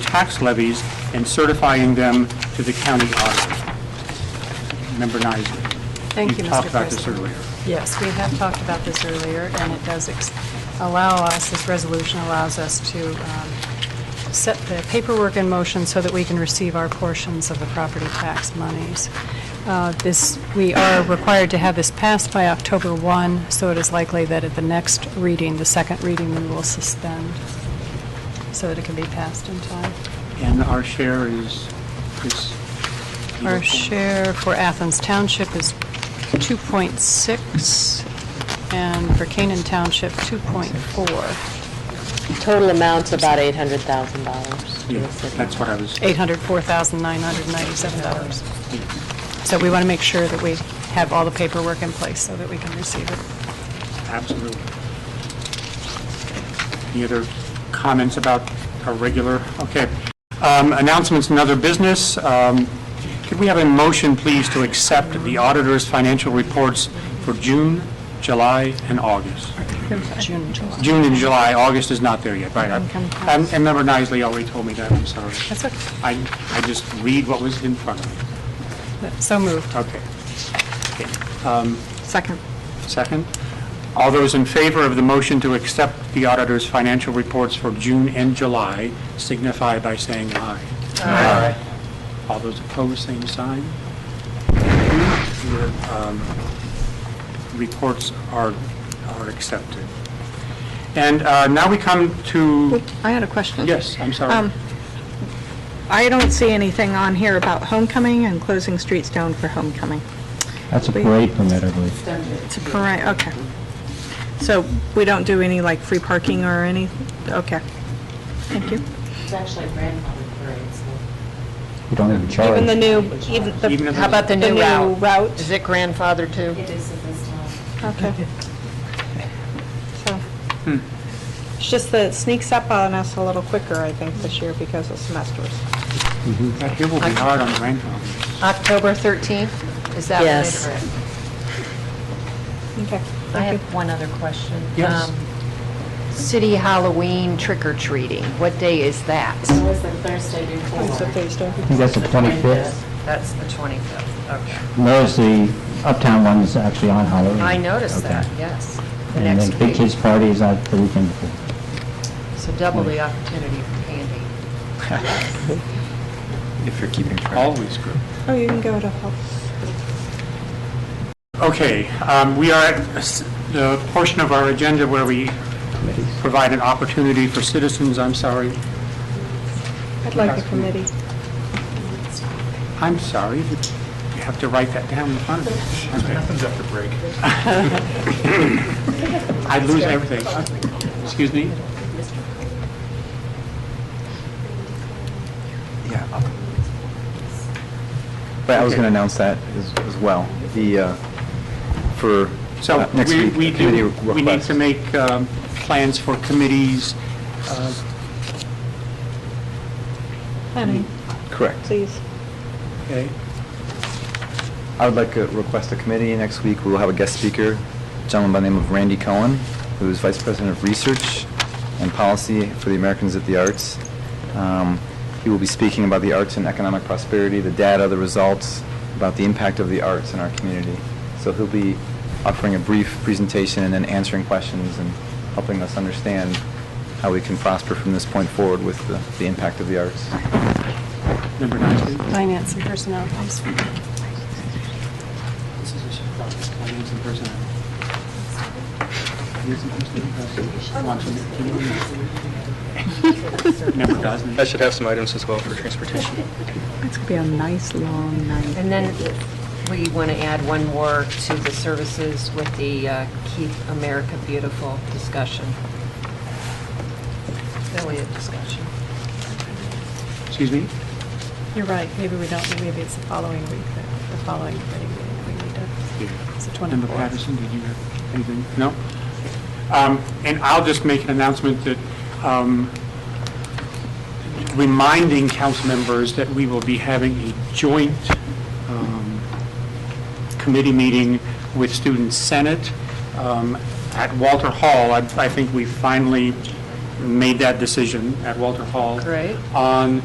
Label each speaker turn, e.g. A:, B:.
A: tax levies and certifying them to the county auditor. Member Nysel.
B: Thank you,
A: We talked
B: Mr. President.
A: about this earlier.
B: Yes, we have talked about this earlier, and it does ex- allow us, this resolution allows us to um, set the paperwork in motion so that we can receive our portions of the property tax monies. Uh, This, we are required to have this passed by October 1, so it is likely that at the next reading, the second reading, we will suspend so that it can be passed in time.
A: And our share is, is...
B: Our share for Athens Township is 2.6, and for Canaan Township, 2.4,
C: Total amount's about eight hundred thousand dollars to
A: Yeah,
C: the city.
A: That's what I was,
B: $804,997. So we want to make sure that we have all the paperwork in place so that we can receive it.
A: absolutely. Any other comments about our regular, okay. Um, Announcements and other business. Um, Could we have a motion, please, to accept the auditor's financial reports for June, July, and August?
B: June, and July.
A: June and July, August is not there yet, right? I- And and Member Nisley already told me that, I'm sorry.
B: That's okay.
A: I, I just read what was in front of me.
B: So moved.
A: Okay. Okay.
B: Second.
A: Second. All those in favor of the motion to accept the auditor's financial reports for June and July signify by saying aye. Aye. All those opposed, same sign. Your um, reports are are accepted. And uh, now we come to,
D: I had a question.
A: yes, I'm sorry.
D: Um, I don't see anything on here about homecoming and closing streets down for homecoming.
E: That's a parade permit, I believe.
D: It's a parade, okay. So we don't do any like free parking or any, okay. Thank you.
C: It's actually a grandfather parade, so.
E: We don't even charge.
D: Even the new, even
A: Even
D: the,
A: if it's-
D: the new route,
C: it grandfather too?
F: It is at this time.
D: okay. So
A: Hmm.
D: It's just that it sneaks up on us a little quicker, I think, this year because of semesters.
A: That here will be hard on grandfathers.
G: Um, October 13th, is that what it
C: Yes.
G: is?
D: Okay.
G: I
D: Thank you.
G: have one other question.
A: Yes.
G: Um, City Halloween trick or treating, what day is that?
F: It was the Thursday before.
D: It's a Thursday.
E: I think that's the 25th.
G: That's the 25th, okay.
E: Notice the Uptown one is actually on Halloween.
G: I noticed
E: Okay.
G: that, yes. The
E: And
G: Next
E: then Big
G: week,
E: Kids Party is out the weekend before.
G: so double the opportunity for candy.
H: If you're keeping track.
A: Always good.
D: Oh, you can go to health.
A: Okay, um, we are at s- the portion of our agenda where we provide an opportunity for citizens, I'm sorry,
D: I'd like a committee.
A: I'm sorry, you have to write that down in front of me. Okay.
H: after break.
A: I lose everything. Excuse me?
H: Yeah. up. But I was
A: Okay.
H: going to announce that as, as well, the, uh, for
A: So
H: uh, next
A: we
H: week,
A: we
H: the committee
A: do, we need
H: request.
A: to make um, plans for committees. Uh,
D: Honey,
H: Correct.
D: please.
A: Okay,
H: I would like to request a committee next week. We'll have a guest speaker, a gentleman by the name of Randy Cohen, who is Vice President of Research and Policy for the Americans at the Arts. Um, He will be speaking about the arts and economic prosperity, the data, the results, about the impact of the arts in our community. So he'll be offering a brief presentation and then answering questions and helping us understand how we can prosper from this point forward with the, the impact of the arts.
A: Member Nisley?
B: Finance and Personnel.
A: This is a show about finance and personnel. Finance and personnel, uh, want to- Member Gosnell?
I: I should have some items as well for transportation.
D: It's gonna be a nice, long night.
G: And then we want to add one more to the services with the uh, Keep America Beautiful discussion. Really a discussion.
A: Excuse me?
B: You're right, maybe we don't, maybe it's the following week, the the following committee meeting we need to, it's the 24th.
A: Member Patterson, did you have anything? No? Um, And I'll just make an announcement that, um, reminding council members that we will be having a joint um, committee meeting with Student Senate um, at Walter Hall. I I think we finally made that decision at Walter Hall.
G: Great.
A: On